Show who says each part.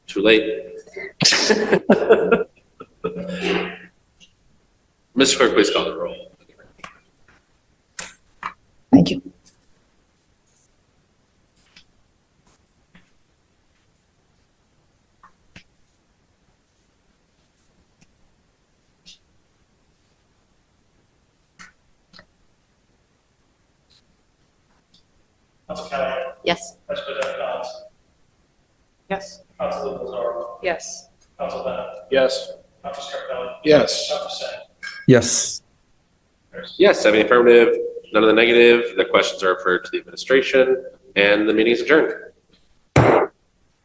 Speaker 1: Too late. Ms. Clerk, please call the roll.
Speaker 2: Thank you.
Speaker 3: Council Callahan,
Speaker 4: Yes.
Speaker 3: Vice President Dodds,
Speaker 4: Yes.
Speaker 3: Council Lozaro,
Speaker 4: Yes.
Speaker 3: Council Bennett,
Speaker 5: Yes.
Speaker 3: Council Scarpelli,
Speaker 5: Yes.
Speaker 3: Council Singh,
Speaker 6: yes,
Speaker 1: Yes, seven affirmative, none of the negative. The questions are referred to the administration, and the meeting is adjourned.